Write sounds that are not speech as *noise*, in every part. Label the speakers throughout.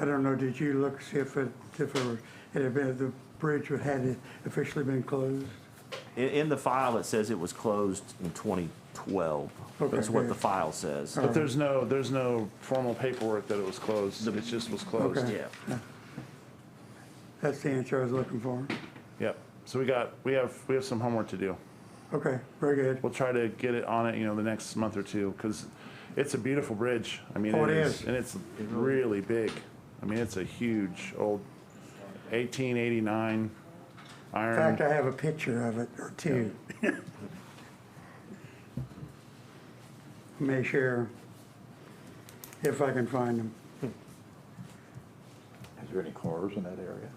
Speaker 1: I don't know, did you look, see if it, if it were- it had been, the bridge had officially been closed?
Speaker 2: In, in the file, it says it was closed in 2012. That's
Speaker 1: Okay.
Speaker 2: what the file says.
Speaker 1: Alright.
Speaker 3: But there's no, there's no formal paperwork that it was closed, it just was closed.
Speaker 1: Okay.
Speaker 2: Yeah.
Speaker 1: That's the answer I was looking for.
Speaker 3: Yep, so we got, we have, we have some homework to do.
Speaker 1: Okay, very good.
Speaker 3: We'll try to get it on it, you know, the next month or two, because it's a beautiful bridge. I mean,
Speaker 1: Oh,
Speaker 3: it
Speaker 1: it
Speaker 3: is,
Speaker 1: is.
Speaker 3: and it's really big. I mean, it's a huge old eighteen
Speaker 1: In
Speaker 3: eighty-nine
Speaker 1: fact,
Speaker 3: iron.
Speaker 1: I have a picture of it, or two. *laughs* May share, if I can find them.
Speaker 4: Is there any cars in that area?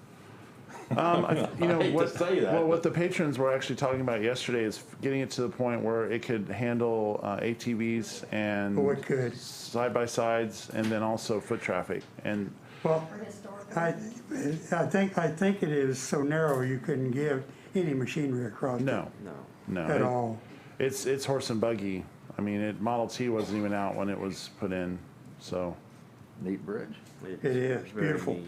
Speaker 3: Um, I- You know
Speaker 4: I hate to
Speaker 3: what?
Speaker 4: say that,
Speaker 3: Well, what the
Speaker 4: but-
Speaker 3: patrons were actually talking about yesterday is getting it to the point where it could handle uh, ATVs and
Speaker 1: Oh, it could.
Speaker 3: side by sides, and then also foot traffic. And
Speaker 1: Well, I, I think, I think it is so narrow you couldn't give any machinery across it.
Speaker 3: no,
Speaker 2: No.
Speaker 3: no,
Speaker 1: At
Speaker 3: it-
Speaker 1: all.
Speaker 3: It's it's horse and buggy. I mean, it Model T wasn't even out when it was put in, so.
Speaker 4: Neat bridge.
Speaker 2: It
Speaker 1: is beautiful.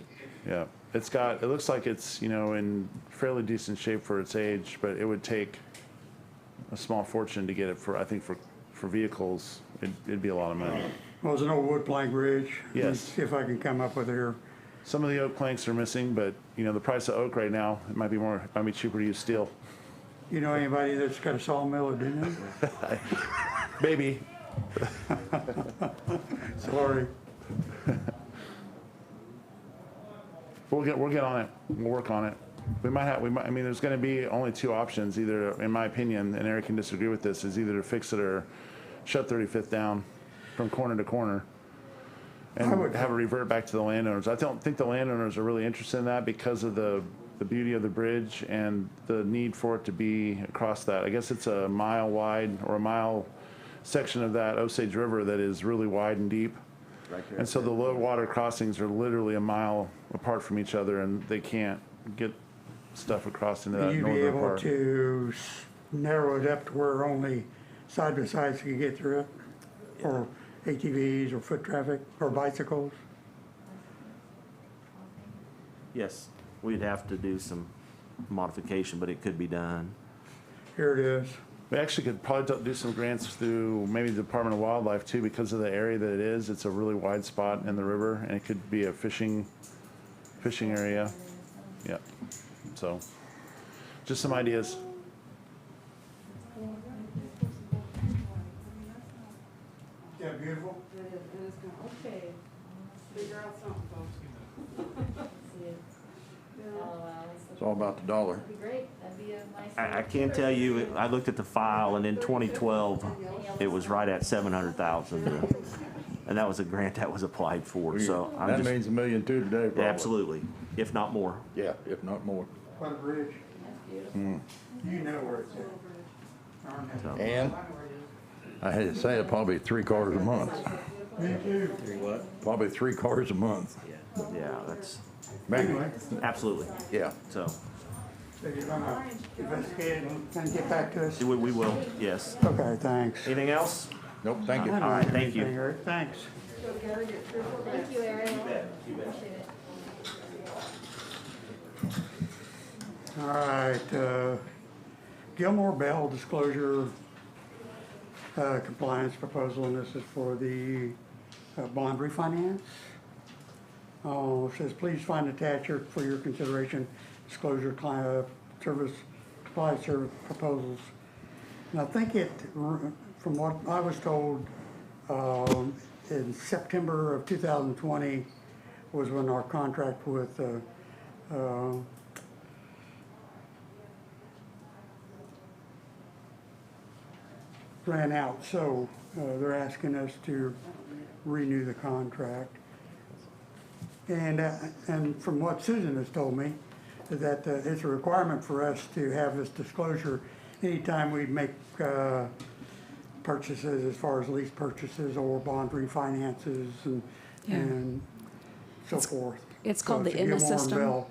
Speaker 3: Yeah, it's got, it looks like it's, you know, in fairly decent shape for its age, but it would take a small fortune to get it for, I think for, for vehicles, it'd, it'd be a lot of money.
Speaker 1: Well, there's an old wood plank bridge.
Speaker 3: Yes.
Speaker 1: See if I can come up with it here.
Speaker 3: Some of the oak planks are missing, but, you know, the price of oak right now, it might be more, it might be cheaper to use steel.
Speaker 1: You know anybody that's got a sawmill or didn't?
Speaker 3: Maybe,
Speaker 1: Sorry.
Speaker 3: we'll get, we'll get on it, we'll work on it. We might have, we might, I mean, there's gonna be only two options, either, in my opinion, and Eric can disagree with this, is either to fix it or shut Thirty-Fifth down from corner to corner.
Speaker 1: I would-
Speaker 3: and have it revert back to the landowners. I don't think the landowners are really interested in that because of the, the beauty of the bridge and the need for it to be across that. I guess it's a mile wide or a mile section of that Osage River that is really wide and deep. And so the low water crossings are literally a mile apart from each other and they can't get stuff across
Speaker 2: Uh,
Speaker 3: into that
Speaker 1: You'd be
Speaker 3: northern
Speaker 1: able
Speaker 3: part.
Speaker 1: to s- narrow it up to where only side by sides can get through it? Or ATVs or foot traffic or bicycles?
Speaker 2: Yes, we'd have to do some modification, but it could be done.
Speaker 1: Here it is.
Speaker 3: We actually could probably do- do some grants through maybe the Department of Wildlife too, because of the area that it is. It's a really wide spot in the river and it could be a fishing, fishing area. Yeah, so just some ideas.
Speaker 1: Yeah, beautiful?
Speaker 5: It is, it is gonna, okay, figure out something, folks.
Speaker 6: Oh,
Speaker 4: It's all about the dollar.
Speaker 6: That'd be great, that'd be a nice.
Speaker 2: I, I can tell you, I looked at the file and in 2012, it was right at 700,000. uh, And that was a grant that was applied for, so I'm
Speaker 4: That
Speaker 2: just,
Speaker 4: means a million two today, probably.
Speaker 2: absolutely, if not more.
Speaker 4: Yeah, if not more.
Speaker 1: What a bridge.
Speaker 6: That's beautiful.
Speaker 2: Hmm.
Speaker 1: You know where it's at. Darn it.
Speaker 2: So,
Speaker 4: And I had to say it, probably three cars a month,
Speaker 1: Me too.
Speaker 4: probably three cars a month.
Speaker 2: Yeah, that's,
Speaker 4: Maybe,
Speaker 1: Anyway,
Speaker 2: absolutely,
Speaker 4: yeah.
Speaker 2: so,
Speaker 1: so you're gonna investigate and and get back to us?
Speaker 2: we, we will, yes.
Speaker 1: Okay, thanks.
Speaker 2: Anything else?
Speaker 4: Nope, thank you.
Speaker 2: All right, thank you.
Speaker 1: Anything, Eric? Thanks.
Speaker 5: So Gary, get through for
Speaker 7: *laughs*
Speaker 5: that.
Speaker 6: Thank you, Ariel. Appreciate it.
Speaker 1: All right, uh, Gilmore Bell disclosure uh, compliance proposal, and this is for the uh, bond refinance. Oh, it says, please find attached here for your consideration disclosure client uh, service, supply service proposals. And I think it, r- from what I was told, um, in September of 2020 was when our contract with uh, uh, ran out, so uh, they're asking us to renew the contract. And, uh, and from what Susan has told me, that uh, it's a requirement for us to have this disclosure anytime we make uh, purchases as far as lease purchases or bond refinances and,
Speaker 7: Yeah.
Speaker 1: and so forth.
Speaker 7: it's
Speaker 1: So
Speaker 7: called the IMMA
Speaker 1: Gilmore and
Speaker 7: system.
Speaker 1: Bell.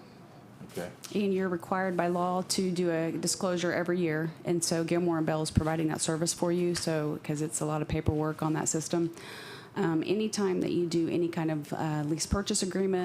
Speaker 4: Okay.
Speaker 7: And you're required by law to do a disclosure every year. And so Gilmore and Bell is providing that service for you, so, because it's a lot of paperwork on that system. Um, Anytime that you do any kind of uh, lease purchase agreement